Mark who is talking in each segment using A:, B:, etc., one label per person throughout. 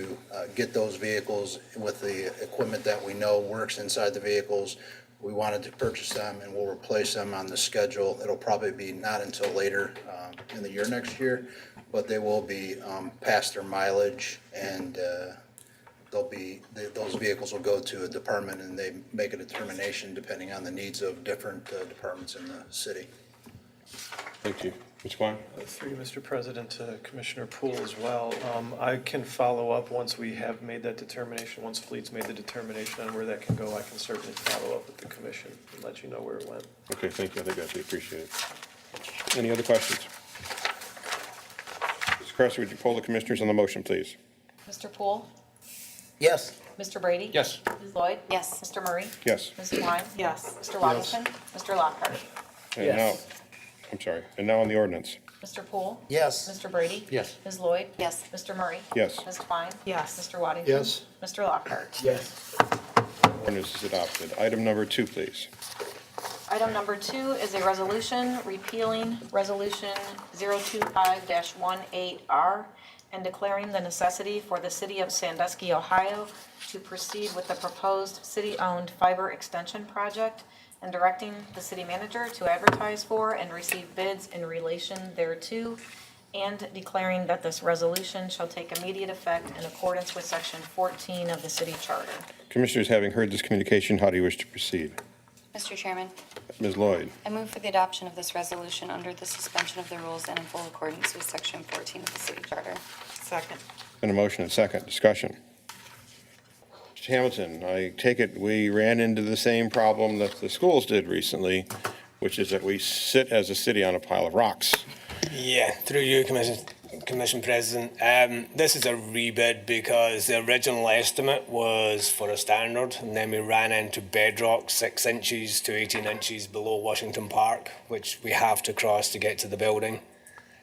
A: to uh, get those vehicles with the equipment that we know works inside the vehicles. We wanted to purchase them and we'll replace them on the schedule. It'll probably be not until later um, in the year next year, but they will be um, past their mileage and uh, they'll be, th- those vehicles will go to a department and they make a determination depending on the needs of different uh, departments in the city.
B: Thank you. Mr. Klein?
C: Through you, Mr. President, to Commissioner Poole as well. Um, I can follow up once we have made that determination, once Fleet's made the determination on where that can go, I can certainly follow up with the commission and let you know where it went.
B: Okay, thank you. I think that'd be appreciated. Any other questions? Mr. Presser, would you poll the commissioners on the motion, please?
D: Mr. Poole?
E: Yes.
D: Mr. Brady?
B: Yes.
D: Ms. Lloyd? Yes. Mr. Murray?
B: Yes.
D: Ms. Klein? Yes. Mr. Robinson? Mr. Lockhart?
B: And now,
E: Yes.
B: I'm sorry, and now on the ordinance.
D: Mr. Poole?
E: Yes.
D: Mr. Brady?
E: Yes.
D: Ms. Lloyd? Yes. Mr. Murray?
B: Yes.
D: Ms. Klein? Yes. Mr. Waddington? Yes. Mr. Lockhart?
E: Yes.
B: Ordinance is adopted. Item number two, please.
D: Item number two is a resolution repealing Resolution 025-18R and declaring the necessity for the City of Sandusky, Ohio to proceed with the proposed city-owned fiber extension project and directing the city manager to advertise for and receive bids in relation thereto, and declaring that this resolution shall take immediate effect in accordance with Section 14 of the city charter.
B: Commissioners, having heard this communication, how do you wish to proceed?
F: Mr. Chairman,
B: Ms. Lloyd?
F: I move for the adoption of this resolution under the suspension of the rules and in full accordance with Section 14 of the City Charter.
D: Second.
B: Been a motion and second. Discussion. Mr. Hamilton, I take it we ran into the same problem that the schools did recently, which is that we sit as a city on a pile of rocks.
G: Yeah, through you, Commission, Commission President. Um, this is a rebid because the original estimate was for a standard, and then we ran into bedrock six inches to 18 inches below Washington Park, which we have to cross to get to the building.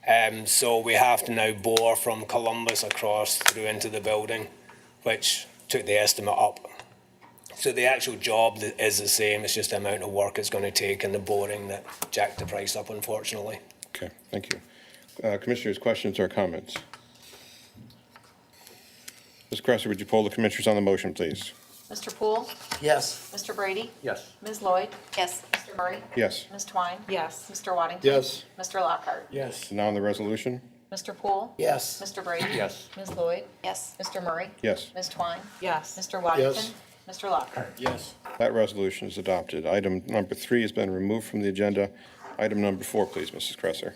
G: Um, so we have to now bore from Columbus across through into the building, which took the estimate up. So the actual job th- is the same, it's just the amount of work it's going to take and the boring that jacked the price up, unfortunately.
B: Okay, thank you. Uh, Commissioners, questions or comments? Ms. Cresser, would you poll the commissioners on the motion, please?
D: Mr. Poole?
E: Yes.
D: Mr. Brady?
E: Yes.
D: Ms. Lloyd?
F: Yes.
D: Mr. Murray?
B: Yes.
D: Ms. Twine? Yes. Mr. Waddington?
E: Yes.
D: Mr. Lockhart?
E: Yes.
B: Now on the resolution?
D: Mr. Poole?
E: Yes.
D: Mr. Brady?
E: Yes.
D: Ms. Lloyd?
F: Yes.
D: Mr. Murray?
B: Yes.
D: Ms. Twine? Yes. Mr. Waddington? Mr. Lockhart?
E: Yes.
B: That resolution is adopted. Item number three has been removed from the agenda. Item number four, please, Mrs. Cresser.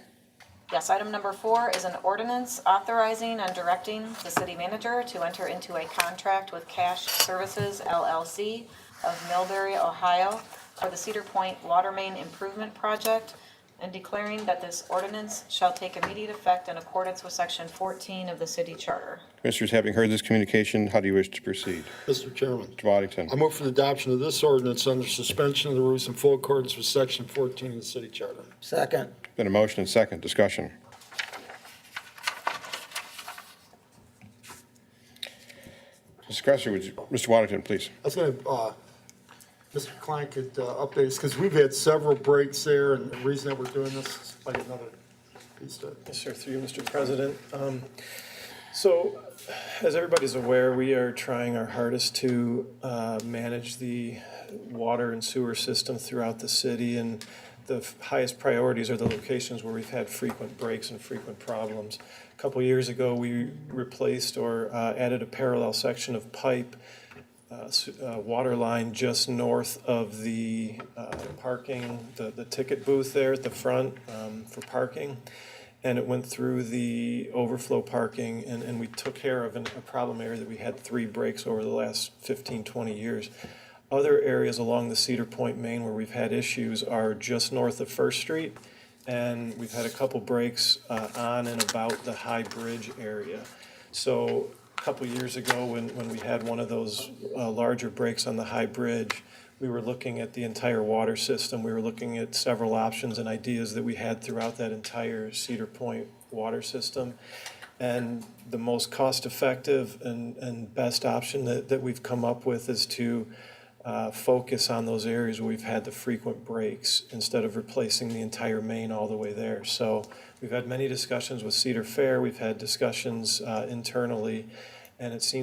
D: Yes, item number four is an ordinance authorizing and directing the city manager to enter into a contract with Cash Services LLC of Millbury, Ohio for the Cedar Point Water Main Improvement Project and declaring that this ordinance shall take immediate effect in accordance with section 14 of the city charter.
B: Commissioners, having heard this communication, how do you wish to proceed?
H: Mr. Chairman,
B: Mr. Waddington?
H: I move for the adoption of this ordinance under suspension of the rules in full accordance with Section 14 of the City Charter.
E: Second.
B: Been a motion and second. Discussion. Mrs. Cresser, would you, Mr. Waddington, please?
H: I was going to, Mr. Klein could uh, update us, because we've had several breaks there, and the reason that we're doing this is like another piece to
C: Yes, sir, through you, Mr. President. Um, So, as everybody's aware, we are trying our hardest to uh, manage the water and sewer system throughout the city, and the f- highest priorities are the locations where we've had frequent breaks and frequent problems. A Couple years ago, we replaced or uh, added a parallel section of pipe uh, s- uh, water line just north of the uh, parking, the the ticket booth there at the front um, for parking. And it went through the overflow parking, and and we took care of an- a problem area that we had three breaks over the last 15, 20 years. Other areas along the Cedar Point Main where we've had issues are just north of First Street, and we've had a couple breaks uh, on and about the High Bridge area. So a couple years ago, when, when we had one of those uh, larger breaks on the High Bridge, we were looking at the entire water system. We were looking at several options and ideas that we had throughout that entire Cedar Point water system. And the most cost-effective and, and best option that, that we've come up with is to uh, focus on those areas where we've had the frequent breaks instead of replacing the entire main all the way there. So we've had many discussions with Cedar Fair, we've had discussions uh, internally, And it seems